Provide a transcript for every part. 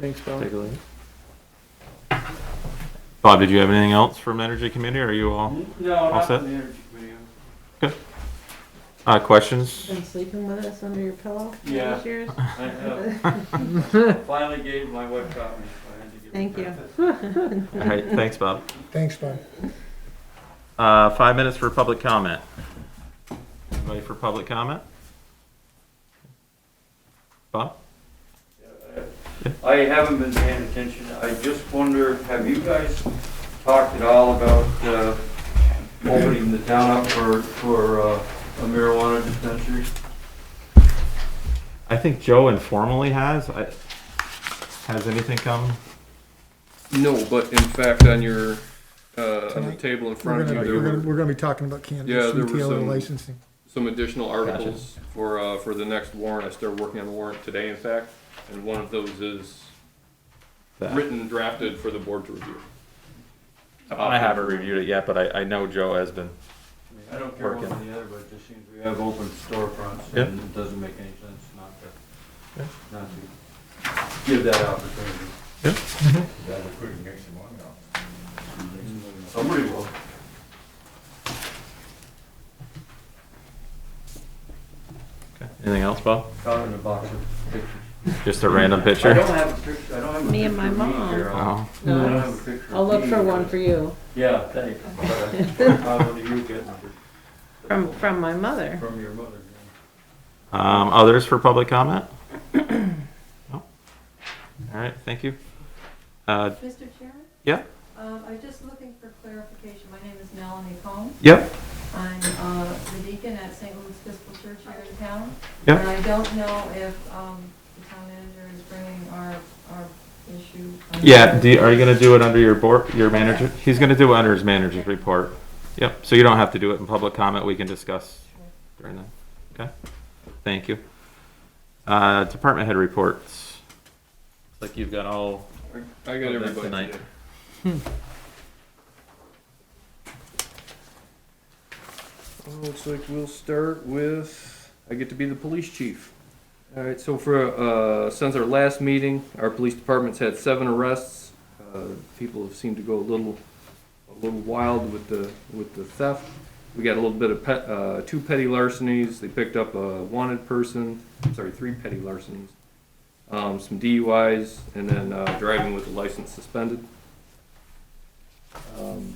Thanks, Bob. Take a look. Bob, did you have anything else from the energy committee? Are you all, No, Oh. All not set? from the energy committee. uh, questions? Been sleeping with us under your pillow? for Yeah. these years? I have finally gave my wife copy. so I had to give it Thank you. back. All right, thanks, Bob. Thanks, Bob. Uh, five minutes for public comment. Anybody for public comment? Bob? I haven't been paying attention. I just wonder, have you guys talked at all about uh, opening the town up for, for uh, a marijuana dispensary? I think Joe informally has. I, has anything come? No, but in fact, on your, uh, on the Tonight. table in front We're of you, gonna, there we're gonna, were we're gonna be talking about Yeah, cannabis there were retailer some- licensing. some additional articles for, uh, for the next warrant. I started working on the warrant today, in fact, and one of those is that- written, drafted for the board to review. I haven't reviewed it yet, but I, I know Joe has been. I mean, I don't care one or the other, but it just seems we have open storefronts Yeah. and it doesn't make any sense not Yeah. to, not to give that opportunity. Mm-hmm. Yeah. Somebody will. Anything else, Bob? Found in a box of pictures. Just a random I picture? don't have a picture, I don't have a picture. Me and my of mom. here. I Oh, don't No. have a picture I'll of look me, for but- one for you, Yeah, thanks. But I- I wanted you to get one from, from my mother. from your mother. um, others for public comment? No? All right, thank you. Uh, Mr. Chairman? Yeah. Um, I was just looking for clarification. My name is Melanie Combs. yep, I'm uh, the deacon at St. Louis Episcopal Church here in town. Yeah. And I don't know if um, the town manager is bringing our, our issue. under- yeah, do, you- are you gonna do it under your board, your manager? He's gonna do it under his manager's report. Yep, so you don't have to do it in public comment, we can discuss during that, okay? Thank you. Uh, department head reports. Looks Like you've got all I got That's everybody tonight. today. Hmm. Looks like we'll start with, I get to be the police chief. All right, so for, uh, since our last meeting, our police department's had seven arrests. Uh, People have seemed to go a little, a little wild with the, with the theft. We got a little bit of pet, uh, two petty larcenies. They picked up a wanted person, sorry, three petty larcenies. Um, some DUIs and then, uh, driving with the license suspended. Um,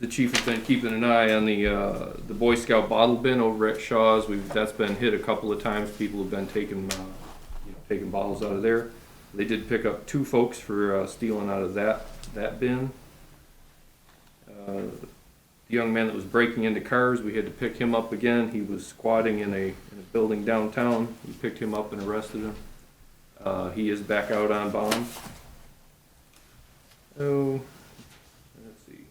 the chief has been keeping an eye on the, uh, the Boy Scout bottle bin over at Shaw's. We've, that's been hit a couple of times. People have been taking, uh, you know, taking bottles out of there. They did pick up two folks for, uh, stealing out of that, that bin. Uh, The young man that was breaking into cars, we had to pick him up again. He was squatting in a, in a building downtown. We picked him up and arrested him. Uh, he is back out on bond. Oh, let's see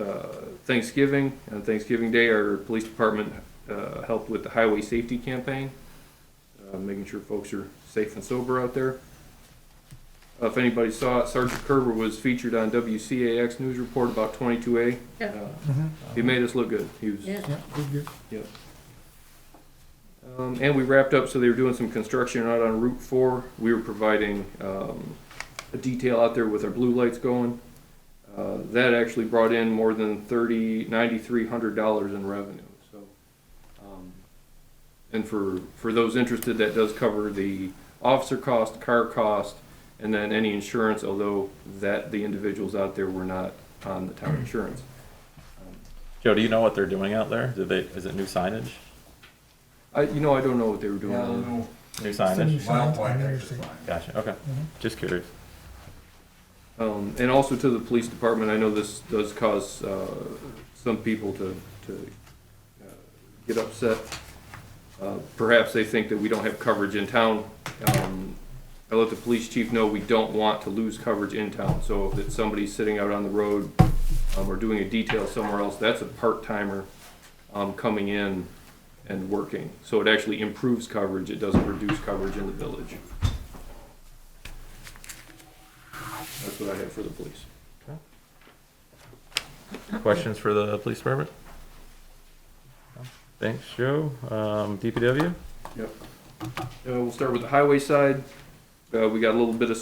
uh, Thanksgiving, on Thanksgiving Day, our police department uh, helped with the highway safety campaign, uh, making sure folks are safe and sober out there. Uh, If anybody saw it, Sergeant Kerber was featured on WCAX News Report about 22A. Yeah. Uh, Mhm. He made us look good. He was, Yeah. Yeah, good, good. um, and we wrapped up, so they were doing some construction out on Route Four. We were providing, um, a detail out there with our blue lights going. Uh, that actually brought in more than thirty, ninety-three hundred dollars in revenue, so. um, And for, for those interested, that does cover the officer cost, car cost, and then any insurance, although that, the individuals out there were not on the town insurance. Joe, do you know what they're doing out there? Do they, is it new signage? I, you know, I don't know what they were doing. Yeah, I don't know. New Send you signage? some out to the mayor's seat. Gotcha, okay. Just curious. Um, and also to the police department, I know this does cause, uh, some people to, to, uh, get upset. Uh, perhaps they think that we don't have coverage in town. Um, I let the police chief know we don't want to lose coverage in town, so if it's somebody sitting out on the road, um, or doing a detail somewhere else, that's a part-timer, um, coming in and working. So it actually improves coverage, it doesn't reduce coverage in the village. That's what I have for the police. Questions for the police department? Thanks, Joe. Um, DPW? Uh, we'll start with the highway side. Uh, we got a little bit of